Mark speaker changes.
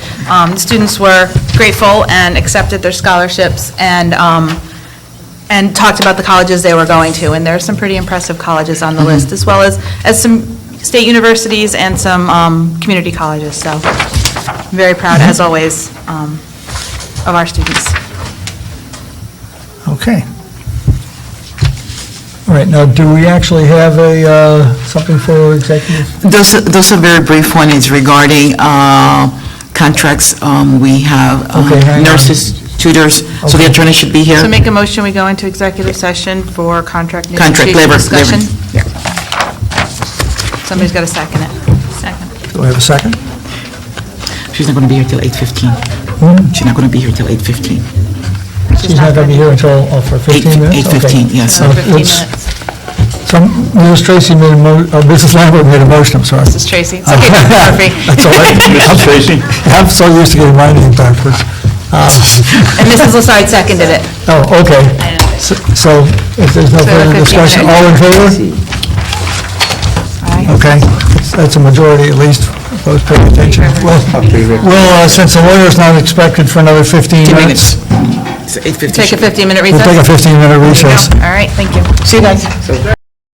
Speaker 1: Um, the Students were grateful and accepted their scholarships and, um, and talked about the colleges they were going to, and there are some pretty impressive colleges on the
Speaker 2: Mm-hmm.
Speaker 1: list, as well as, as some state universities and some um, community colleges, so I'm very
Speaker 2: Mm-hmm.
Speaker 1: proud, as always, um, of our students.
Speaker 3: Okay. All right, now, do we actually have a, uh, something for executive?
Speaker 2: Those, those are very brief one, it's regarding uh, contracts, um, we have uh,
Speaker 3: Okay, hang on.
Speaker 2: nurses, tutors, so the
Speaker 3: Okay.
Speaker 2: attorney should be
Speaker 1: So
Speaker 2: here.
Speaker 1: make a motion, we go into executive session for contract
Speaker 2: Contract,
Speaker 1: negotiation
Speaker 2: labor,
Speaker 1: discussion.
Speaker 2: labor.
Speaker 1: Somebody's got to second it. Second.
Speaker 3: Do I have a second?
Speaker 2: She's not going to be here till 8:15.
Speaker 3: Hmm?
Speaker 2: She's not going to be here till 8:15.
Speaker 3: She's not going to be here until, oh, for 15 minutes? Okay. Uh,
Speaker 2: 8:15, yes.
Speaker 3: So
Speaker 1: Another 15
Speaker 3: let's-
Speaker 1: minutes.
Speaker 3: So Mrs. Tracy made a mo, uh, Mrs. Lambert made a motion, I'm sorry.
Speaker 1: This is Tracy. It's okay, Dr. Murphy.
Speaker 3: That's all right.
Speaker 4: Mrs. Tracy?
Speaker 3: I'm so used to getting my name backwards. Uh,
Speaker 1: And Mrs. Lasard seconded it.
Speaker 3: Oh, okay. So- So if there's no
Speaker 1: So
Speaker 3: further
Speaker 1: 15
Speaker 3: discussion, all in favor?
Speaker 1: Aye.
Speaker 3: Okay, That's- that's a majority at least, those paying attention. Well, well, uh, since the lawyer's not expected for another 15
Speaker 2: 15
Speaker 3: minutes,
Speaker 2: minutes. It's 8:15.
Speaker 1: Take a 15-minute
Speaker 3: we'll
Speaker 1: recess.
Speaker 3: take a 15-minute recess.
Speaker 1: All right, thank you.
Speaker 2: See you guys.